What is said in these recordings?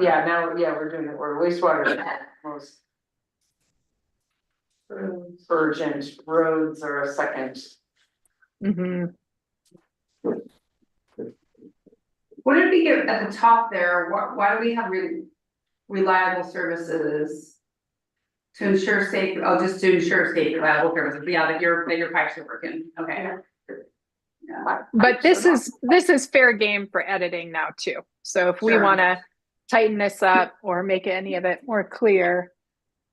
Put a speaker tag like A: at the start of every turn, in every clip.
A: yeah, now, yeah, we're doing it, we're wastewater most. Urgent roads are a second.
B: Mhm.
C: What did we get at the top there, why, why do we have re- reliable services? To ensure safe, oh, just to ensure safe, reliable services, yeah, that your, that your pipes are working, okay.
B: But this is, this is fair game for editing now too. So if we
C: Sure.
B: want to tighten this up or make any of it more clear,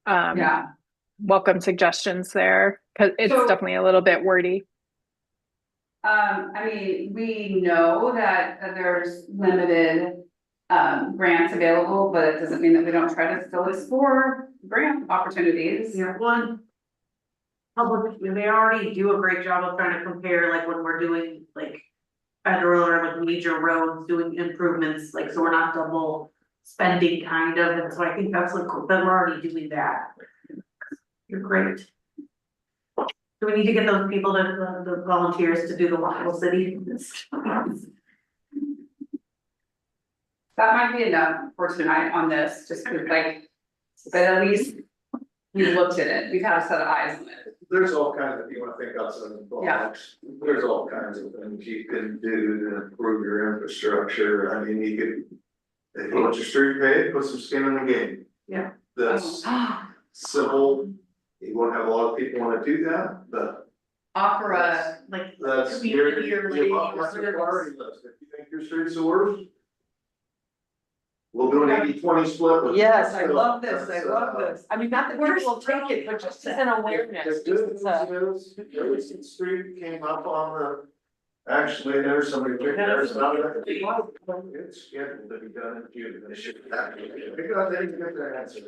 B: um,
C: Yeah,
B: welcome suggestions there, because it's
C: So-
B: definitely a little bit wordy.
C: um, I mean, we know that that there's limited. Um, grants available, but it doesn't mean that we don't try to still explore grant opportunities.
D: Yeah, one. Public, they already do a great job of trying to compare, like when we're doing like. Federal or like major roads, doing improvements, like so we're not double spending kind of, and so I think that's like, then we're already doing that. You're great. Do we need to get those people to, the the volunteers to do the Waffle City?
C: That might be enough for tonight on this, just 'cause, like, but at least we looked at it, we've had a set of eyes on it.
E: There's all kinds of, you wanna think outside the box, there's all kinds of things you can do to improve your infrastructure, I mean, you could. If you want your street paved, put some skin in the game.
D: Yeah. Oh.
E: That's simple, you won't have a lot of people wanna do that, but
C: Offer a,
D: Like,
E: that's
D: Community
E: your,
D: or
E: your lot-
D: ladies
E: that's your
D: or-
E: priority list, if you think your streets are worse. We'll do an 80-20 split with.
A: Yes,
E: so that's, uh,
A: I mean, not that people will take it, but just as an awareness,
E: The good
A: just as a.
E: news is, Jefferson Street came up on the, actually, there's somebody, there's another. It's scheduled to be done in June, they should have, they got, they didn't get their answer.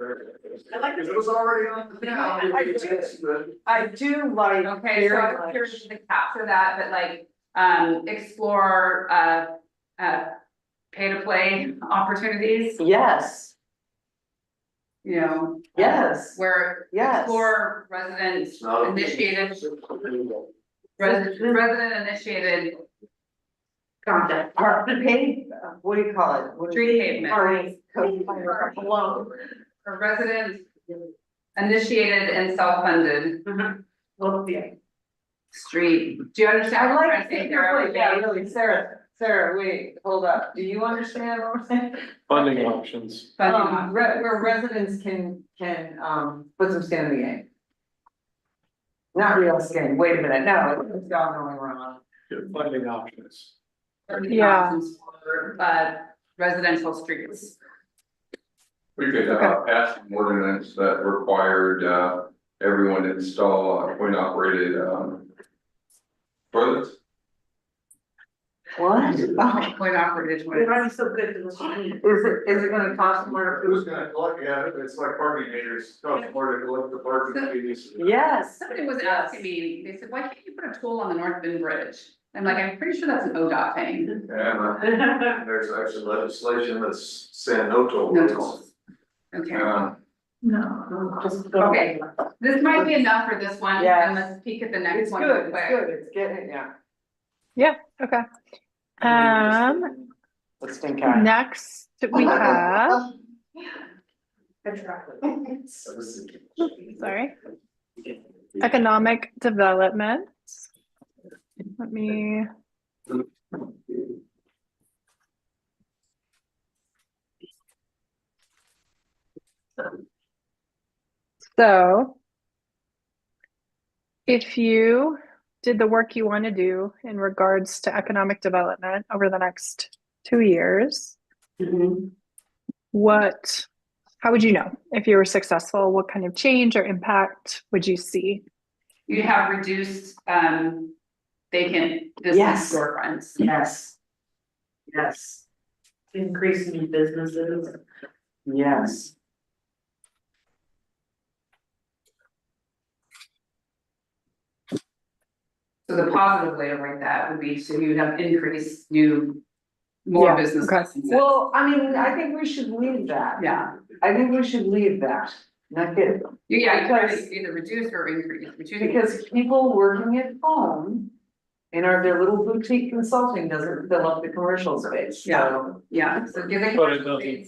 D: I like this.
E: It was already on. the
C: Yeah, I-
A: I-
E: Yes, but-
A: I do like
C: okay, so I'm curious to capture that, but like, um, explore, uh, uh. Pay to play opportunities,
A: Yes,
C: you know.
A: yes,
C: Where
A: yes.
C: explore resident
E: It's not-
C: initiated, resident, resident initiated
D: content.
A: Or pay, uh, what do you call it? What do you-
C: tree pavement.
A: Alright, code.
D: Hello.
C: For residents initiated and self-funded
A: Mm-hmm.
D: Mhm. Well, yeah.
C: street, do you understand?
A: I
C: what I'm
A: like,
C: trying to say
A: it.
C: there?
A: You're right. yeah, really, Sarah, Sarah, wait, hold up, do you understand what I'm saying?
F: Funding options.
C: Funding
A: Um, re- where residents can, can, um, put some skin in the game. Not real skin, wait a minute, no, it's all going wrong.
F: Funding options.
C: funding
B: Yeah.
C: options for, uh, residential streets.
G: We could uh pass an ordinance that required uh everyone to install uh, coin operated um. Toilets,
A: What?
C: Point operated
D: We're
C: toilets.
D: already so good to this one.
A: Is it, is it gonna cost more?
E: Who's gonna collect, yeah, it's like parking meters, costs more to collect the parking fees.
A: Yes.
C: Somebody was asking me, they said, why can't you put a tool on the North Bend Bridge? I'm like, I'm pretty sure that's an ODOT thing,
E: And uh, there's actually legislation that's saying no toll.
C: no tools. Okay,
G: uh,
D: No, just go.
C: Okay. this might be enough for this one,
A: Yes.
C: and let's peek at the
A: It's
C: next one
A: good,
C: real
A: it's
C: quick.
A: good, it's getting, yeah.
B: Okay. Um,
A: Let's think on it.
B: next we have, sorry, economic development. Let me. So if you did the work you want to do in regards to economic development over the next two years, what, how would you know if you were successful? What kind of change or impact would you see?
C: You have reduced, um, vacant
A: Yes.
C: business storefronts.
A: Yes. Yes.
D: Increase new businesses.
A: Yes.
C: So the positive way of like that would be, so you would have increased new, more
B: Yeah,
C: business
B: okay.
C: licenses.
A: Well, I mean, I think we should leave that.
C: Yeah,
A: I think we should leave that, not get
C: You- yeah, you try
A: Because-
C: to either reduce or increase, but you.
A: Because people working at home in our, their little boutique consulting doesn't fill up the commercial space, so.
C: Yeah, so give it.
F: But it doesn't